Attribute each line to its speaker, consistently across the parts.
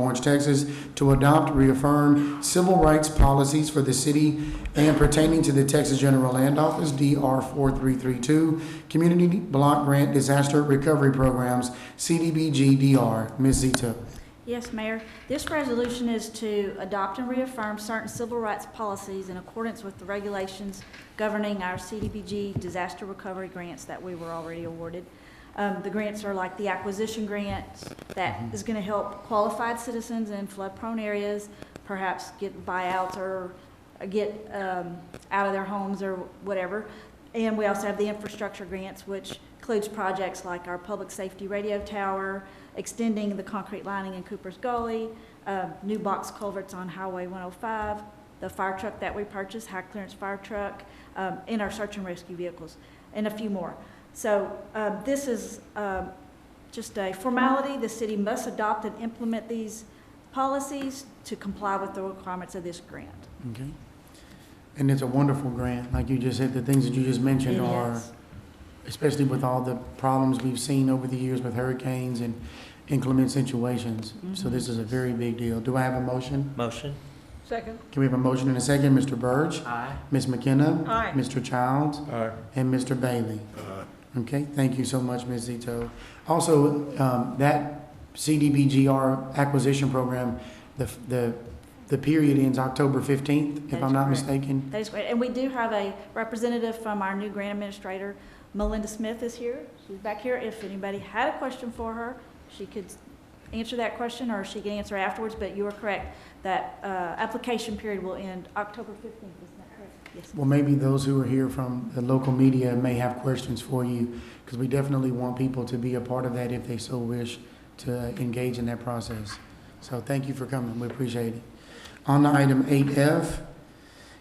Speaker 1: Orange, Texas, to adopt, reaffirm civil rights policies for the city and pertaining to the Texas General Land Office, DR 4332, Community Block Grant Disaster Recovery Programs, CDBG-DR. Ms. Zito.
Speaker 2: Yes, Mayor. This resolution is to adopt and reaffirm certain civil rights policies in accordance with the regulations governing our CDBG disaster recovery grants that we were already awarded. Um, The grants are like the acquisition grants that is going to help qualified citizens in flood-prone areas perhaps get buyouts or get um, out of their homes or whatever. And we also have the infrastructure grants, which includes projects like our public safety radio tower, extending the concrete lining in Cooper's Gully, um, new box culverts on Highway 105, the fire truck that we purchased, high clearance fire truck, um, and our search and rescue vehicles, and a few more. So um, this is um, just a formality. The city must adopt and implement these policies to comply with the requirements of this grant.
Speaker 1: Okay. And it's a wonderful grant, like you just said, the things that you just mentioned are, especially with all the problems we've seen over the years with hurricanes and inclement situations. So this is a very big deal. Do I have a motion?
Speaker 3: Motion?
Speaker 4: Second.
Speaker 1: Can we have a motion and a second? Mr. Burge?
Speaker 3: Aye.
Speaker 1: Ms. McKenna?
Speaker 4: Aye.
Speaker 1: Mr. Childs?
Speaker 3: Aye.
Speaker 1: And Mr. Bailey? Okay, thank you so much, Ms. Zito. Also, um, that CDBGR acquisition program, the, the, the period ends October fifteenth, if
Speaker 2: That
Speaker 1: I'm
Speaker 2: is
Speaker 1: not
Speaker 2: correct.
Speaker 1: mistaken.
Speaker 2: That is great. And we do have a representative from our new grant administrator, Melinda Smith is here. She's back here. If anybody had a question for her, she could answer that question or she can answer afterwards. But you are correct, that uh, application period will end October 15th, isn't that correct? Yes.
Speaker 1: Well, maybe those who are here from the local media may have questions for you, because we definitely want people to be a part of that if they so wish to engage in that process. So thank you for coming, we appreciate it. On to item eight F,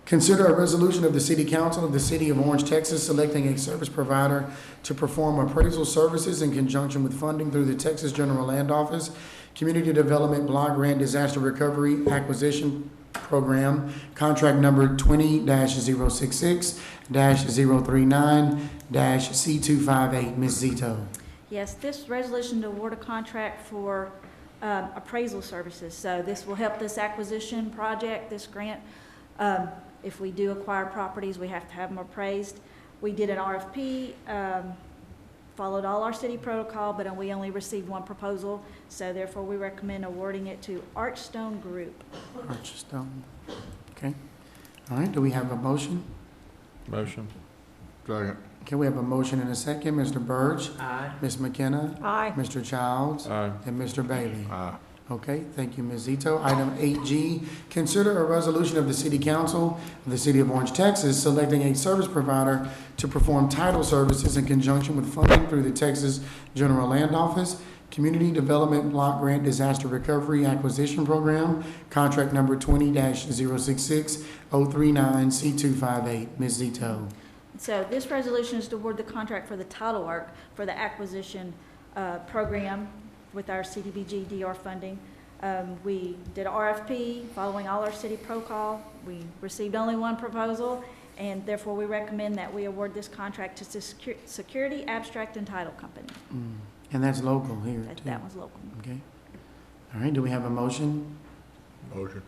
Speaker 1: Consider a resolution of the City Council of the City of Orange, Texas, selecting a service provider to perform appraisal services in conjunction with funding through the Texas General Land Office, Community Development Block Grant Disaster Recovery Acquisition Program, contract number twenty 66 39 C two five eight. Ms. Zito.
Speaker 2: Yes, this resolution to award a contract for um, appraisal services. So this will help this acquisition project, this grant. Um, If we do acquire properties, we have to have them appraised. We did an RFP, um, followed all our city protocol, but we only received one proposal. So therefore, we recommend awarding it to Archstone Group.
Speaker 1: Archstone. Okay. All right, do we have a motion?
Speaker 3: Motion?
Speaker 5: Second.
Speaker 1: Okay, we have a motion and a second. Mr. Burge,
Speaker 3: Aye.
Speaker 1: Ms. McKenna,
Speaker 4: Aye.
Speaker 1: Mr. Childs,
Speaker 3: Aye.
Speaker 1: and Mr. Bailey.
Speaker 5: Aye.
Speaker 1: Okay, thank you, Ms. Zito. Item eight G, consider a resolution of the City Council of the City of Orange, Texas, selecting a service provider to perform title services in conjunction with funding through the Texas General Land Office, Community Development Block Grant Disaster Recovery Acquisition Program, contract number twenty 66 zero six six oh three nine C two five eight. Ms. Zito.
Speaker 2: So this resolution is to award the contract for the title work for the acquisition uh, program with our CDBG DR funding. Um, We did a RFP following all our city protocol. We received only one proposal, and therefore we recommend that we award this contract to Secu- Security Abstract and Title Company.
Speaker 1: Mm, And that's local here,
Speaker 2: That-
Speaker 1: too.
Speaker 2: That one's local.
Speaker 1: Okay. All right, do we have a motion?
Speaker 5: Motion.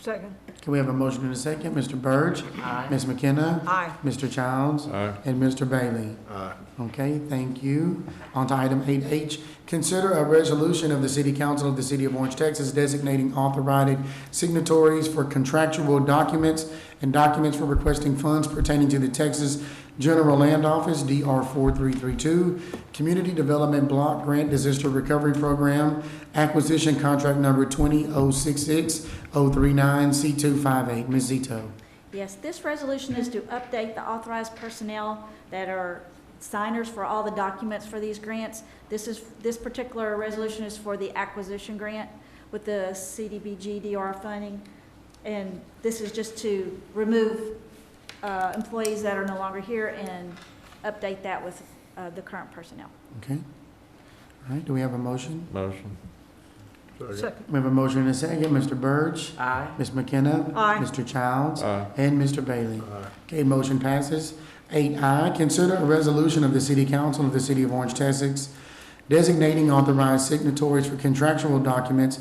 Speaker 4: Second.
Speaker 1: Can we have a motion in a second? Mr. Burge,
Speaker 3: Aye.
Speaker 1: Ms. McKenna,
Speaker 4: Aye.
Speaker 1: Mr. Childs,
Speaker 3: Aye.
Speaker 1: and Mr. Bailey.
Speaker 5: Aye.
Speaker 1: Okay, thank you. On to item eight H, consider a resolution of the City Council of the City of Orange, Texas designating authorized signatories for contractual documents and documents for requesting funds pertaining to the Texas General Land Office, DR four three three two, Community Development Block Grant Disaster Recovery Program, acquisition contract number twenty oh six six oh three nine C two five eight. Ms. Zito.
Speaker 2: Yes, this resolution is to update the authorized personnel that are signers for all the documents for these grants. This is, this particular resolution is for the acquisition grant with the CDBG DR funding. And this is just to remove uh, employees that are no longer here and update that with uh, the current personnel.
Speaker 1: Okay. All right, do we have a motion?
Speaker 3: Motion?
Speaker 5: Second.
Speaker 4: Second.
Speaker 1: We have a motion and a second. Mr. Burge,
Speaker 3: Aye.
Speaker 1: Ms. McKenna.
Speaker 4: Aye.
Speaker 1: Mr. Childs.
Speaker 3: Aye.
Speaker 1: And Mr. Bailey.
Speaker 5: Aye.
Speaker 1: Okay, motion passes. Eight I, consider a resolution of the City Council of the City of Orange, Texas designating authorized signatories for contractual documents